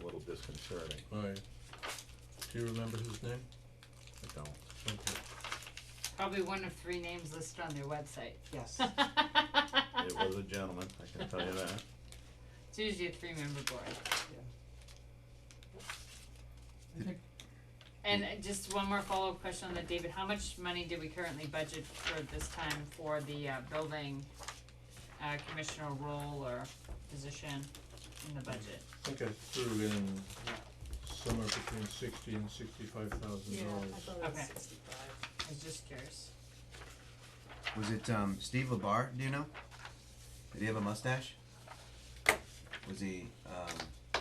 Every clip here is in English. a little disconcerting, Alright. Do you remember his name? I don't. Okay. Probably one of three names listed on their website. Yes. It was a gentleman, I can tell you that. It's usually a three-member board. I think And uh, just one more follow-up question on that, David, how much money do we currently budget for this time for the uh building uh commissioner role or position in the budget? I think I threw in somewhere between sixty and sixty-five thousand Yeah, dollars. I thought it was Okay. sixty-five. I was just curious. Was it um, Steve Labar? Do you know? Did he have a mustache? Was he? Um, I I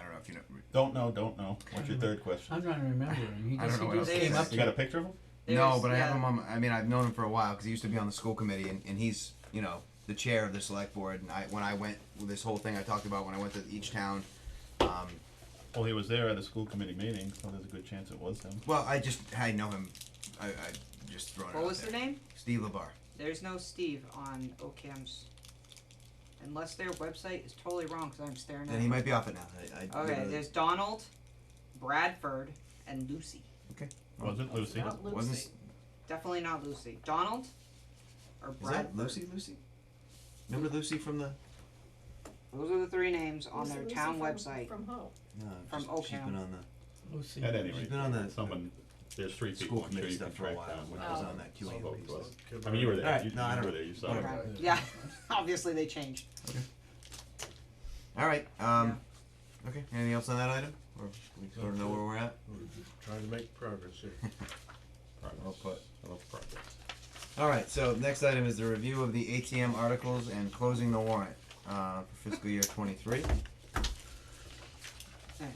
don't know if you know. Don't know, don't know. What's your third I'm question? trying to remember him. He I just, don't know he what just else to came say. up to You got a picture of him? no, There's- but I have yeah. him on. My, I mean, I've known him for a while because he used to be on the school committee, and, and he's you know the chair of the select board. And I when I went with this whole thing I talked about when I went to each town. Um, Well, he was there at a school committee meeting, so there's a good chance it was him. well, I just I know him. I, I just thrown it What out was the there. name? Steve Labar. There's no Steve on OCAM's. Unless their website is totally wrong, cause I'm staring at And he it. might be off it now. I, I Okay, literally- there's Donald, Bradford, and Lucy. Was it Lucy? Not Lucy. wasn't s- Definitely not Lucy. Donald or is that Bradford. Lucy? Lucy. Remember Lucy from the Those are the three names on Who's their Lucy town from- website. From who? No, From she's- She's been Oakham. on Lucy. At any the, she's rate, been on the someone, there's three school people, I'm sure committee you can stuff for a track while down. when what I was it on that was, QA what committee. it was. stuff. I mean, you were there, Alright, you you no, I don't- were there, you saw it. whatever. Okay. Yeah. Obviously they changed. All right. Um, Okay. Anything else on that item, or we sort of know where we're at? We're trying to make progress here. Progress. Well put. Well, progress. All right. So next item is the review of the ATM articles and closing the warrant uh, for fiscal year 23. Alright.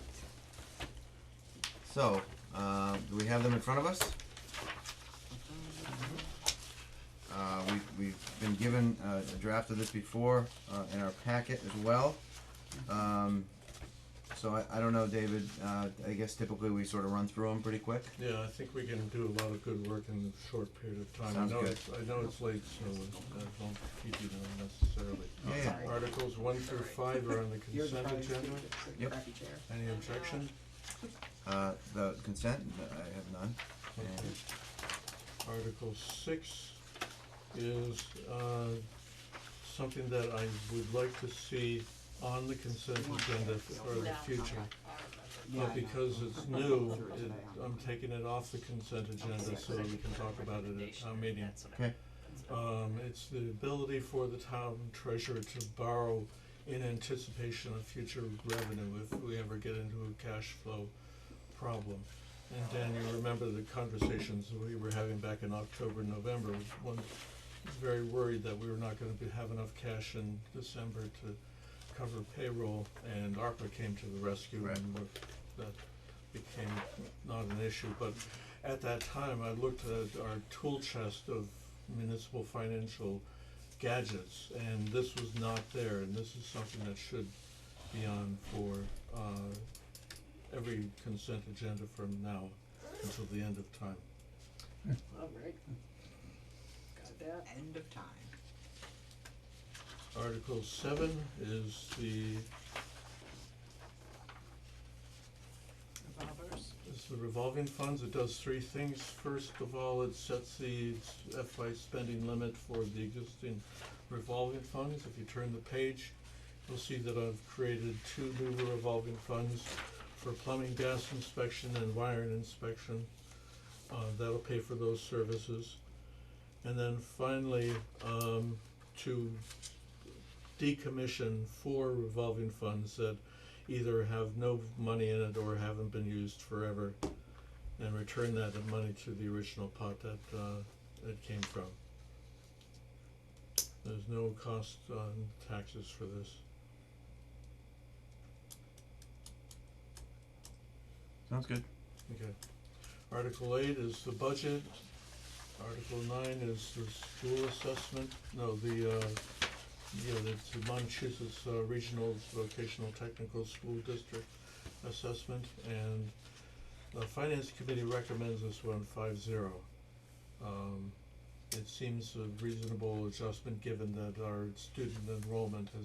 So uh, do we have them in front of us? Uh, we've, we've been given uh, a draft of this before uh, in our packet as well. Um, so I, I don't know, David. Uh, I guess typically we sort of run through them pretty quick. Yeah, I think we can do a lot of good work in a short period of time. Sounds I know good. it's, I know it's late, so I don't keep you down necessarily. Yeah, yeah. Sorry. Articles one through five are on the You're consent trying to agenda. do it, it's a Yep. crappy chair. Any objection? Uh, the consent, no, I have none. Okay. Article six is, uh, something that I would like to see on the consent agenda for the future. Yeah, I know. But because it's new, Through it it, today. I'm taking it off the consent agenda so that we can talk about it at town meeting. Okay. Um, it's the ability for the town treasurer to borrow in anticipation of future revenue if we ever get into a cash flow problem. And Dan, you remember the conversations that we were having back in October, November, one was very worried that we were not gonna be, have enough cash in December to cover payroll, and ARPA came to the rescue Right. and we're- that became not an issue, but at that time, I looked at our tool chest of municipal financial gadgets, and this was not there, and this is something that should be on for, uh, every consent agenda from now until the end of time. Alright. Oh, Got that. End of time. Article seven is the, Revolvers. is the revolving funds. It does three things. First of all, it sets the FY spending limit for the existing revolving funds. If you turn the page, you'll see that I've created two new revolving funds for plumbing gas inspection and wiring inspection. Uh, that'll pay for those services. And then finally, um, to decommission four revolving funds that either have no money in it or haven't been used forever and return that money to the original pot that uh it came from. There's no cost on taxes for this. Sounds good. Okay. Article eight is the budget. Article nine is the school assessment, no, the, uh, yeah, that's the Massachusetts uh, Regional Vocational Technical School District Assessment, and the Finance Committee recommends this one five zero. Um, it seems a reasonable adjustment given that our student enrollment has